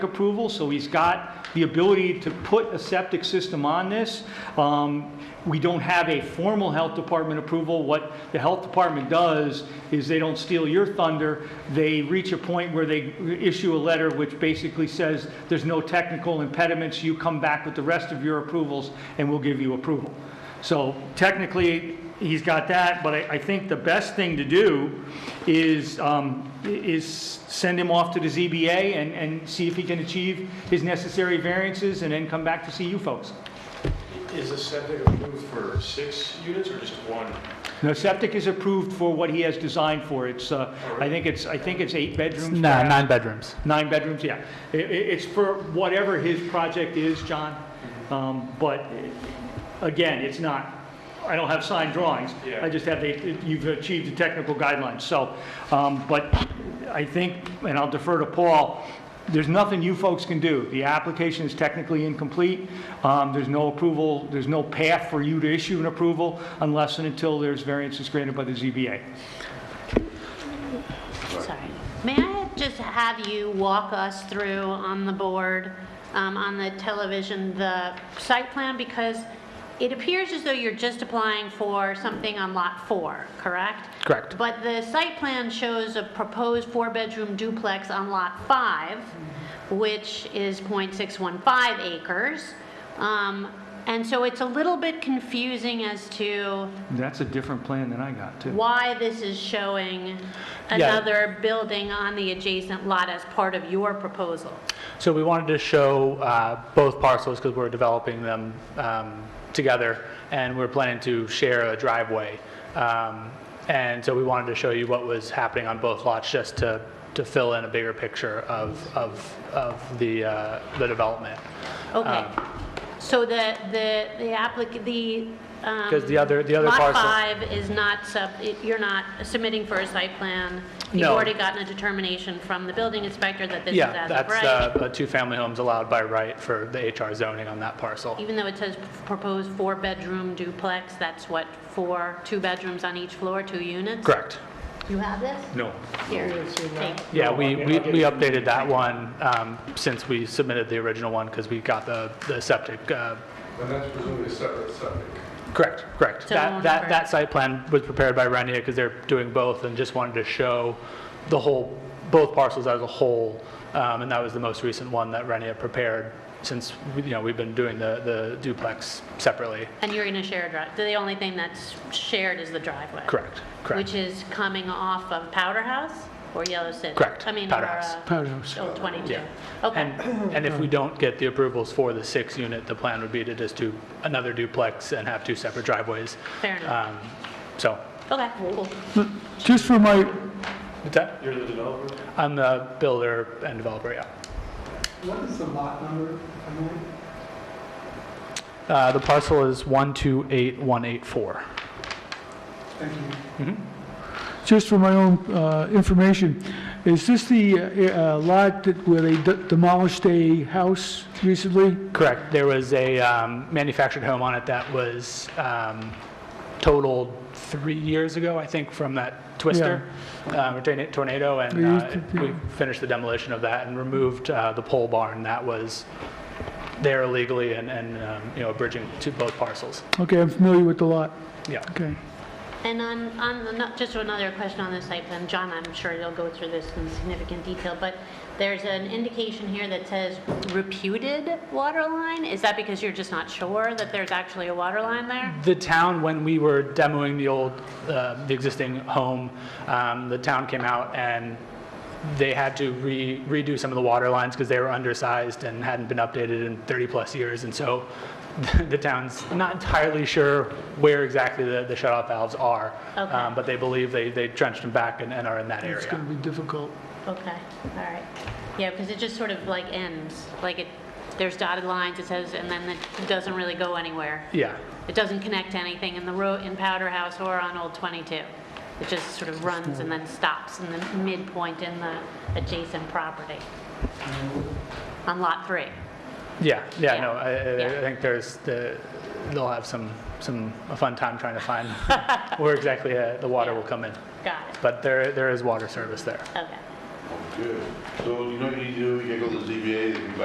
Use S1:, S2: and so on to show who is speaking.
S1: approval, so he's got the ability to put a septic system on this. Um, We don't have a formal health department approval. What the health department does is they don't steal your thunder. They reach a point where they issue a letter which basically says, there's no technical impediments, you come back with the rest of your approvals, and we'll give you approval. So technically, he's got that, but I, I think the best thing to do is, um, i- is send him off to the ZBA and, and see if he can achieve his necessary variances and then come back to see you folks.
S2: Is the septic approved for six units or just one?
S1: Now, septic is approved for what he has designed for. It's, uh, I think it's, I think it's eight bedrooms.
S3: No,
S1: perhaps?
S3: nine bedrooms.
S1: Nine bedrooms, yeah. I- i it's for whatever his project is, John. Um, but eh, again, it's not, I don't have signed drawings.
S2: Yeah.
S1: I just have, the you've achieved the technical guidelines, so. Um, but I think, and I'll defer to Paul, there's nothing you folks can do. The application is technically incomplete. Um, there's no approval, there's no path for you to issue an approval unless and until there's variances granted by the ZBA.
S4: Sorry. May I just have you walk us through on the board, um, on the television, the site plan? Because it appears as though you're just applying for something on Lot 4, correct?
S3: Correct.
S4: But the site plan shows a proposed four-bedroom duplex on Lot 5, which is .615 acres. Um, And so it's a little bit confusing as to
S1: That's a different plan than I got, too.
S4: why this is showing
S3: Yeah.
S4: another building on the adjacent lot as part of your proposal.
S3: So we wanted to show uh, both parcels because we're developing them um, together, and we're planning to share a driveway. Um, And so we wanted to show you what was happening on both lots, just to, to fill in a bigger picture of, of, of the, uh, the development.
S4: Okay.
S3: Um,
S4: So the, the, the applicant, the. um,
S3: 'Cause the other- the other
S4: Lot
S3: parcel-
S4: five is not sub, you're not submitting for a site plan. You've
S3: No.
S4: already gotten a determination from the building inspector that this is
S3: Yeah,
S4: as of
S3: that's
S4: right.
S3: uh, the two-family homes allowed by right for the HR zoning on that parcel.
S4: Even though it says proposed four-bedroom duplex, that's what, four, two bedrooms on each floor, two units?
S3: Correct.
S4: You have this?
S1: No.
S4: Here, take.
S3: Yeah, we, we we updated that one um, since we submitted the original one because we got the, the septic. uh,
S5: And that's presumably separate septic.
S3: Correct, correct.
S4: So
S3: That, that,
S4: number-
S3: that site plan was prepared by Renia because they're doing both and just wanted to show the whole, both parcels as a whole. Um, And that was the most recent one that Renia prepared since, you know, we've been doing the, the duplex separately.
S4: And you're going to share a drive, the only thing that's shared is the driveway?
S3: Correct, correct.
S4: Which is coming off of Powder House or Yellow City?
S3: Correct,
S4: I mean,
S3: Powder
S4: or,
S3: House.
S4: uh, Old 22?
S3: Yeah.
S4: Okay,
S3: And, and if we don't get the approvals for the six unit, the plan would be to just do another duplex and have two separate driveways.
S4: fair enough.
S3: Um, So,
S4: Okay, cool.
S6: Just for my,
S3: what's that?
S2: You're the developer?
S3: I'm the builder and developer, yeah.
S7: What is the lot number, if I may?
S3: Uh, The parcel is 128184.
S7: Thank you.
S6: just for my own uh, information, is this the uh, uh, lot that where they de- demolished a house recently?
S3: Correct. There was a um, manufactured home on it that was um, totaled three years ago, I think, from that twister, um, or torna- tornado, and
S6: They used
S3: uh,
S6: to- yeah.
S3: we finished the demolition of that and removed uh, the pole barn that was there illegally and, and, um, you know, bridging to both parcels.
S6: Okay, I'm familiar with the lot.
S3: Yeah.
S6: Okay.
S4: And on, on, the no- just another question on this site plan, John, I'm sure you'll go through this in significant detail, but there's an indication here that says reputed water line? Is that because you're just not sure that there's actually a water line there?
S3: The town, when we were demoing the old, uh, the existing home, um, the town came out and they had to re- redo some of the water lines because they were undersized and hadn't been updated in 30-plus years. And so the town's not entirely sure where exactly the the shut-off valves are.
S4: Okay.
S3: Um, But they believe they they drenched them back and and are in that
S6: It's going
S3: area.
S6: to be difficult.
S4: Okay, all right. Yeah, because it just sort of like ends, like it, there's dotted lines, it says, and then it doesn't really go anywhere.
S3: Yeah,
S4: It doesn't connect to anything in the road, in Powder House or on Old 22. It just sort of runs and then stops in the midpoint in the adjacent property. On Lot 3.
S3: yeah, yeah, no, I-
S4: Yeah.
S3: I- I think there's, the they'll have some, some, a fun time trying to find where exactly uh, the water
S4: Yeah.
S3: will come in.
S4: Got it,
S3: But there, there is water service there.
S4: okay.
S2: Good. So you know what you need to do, you gotta go to the ZBA, they can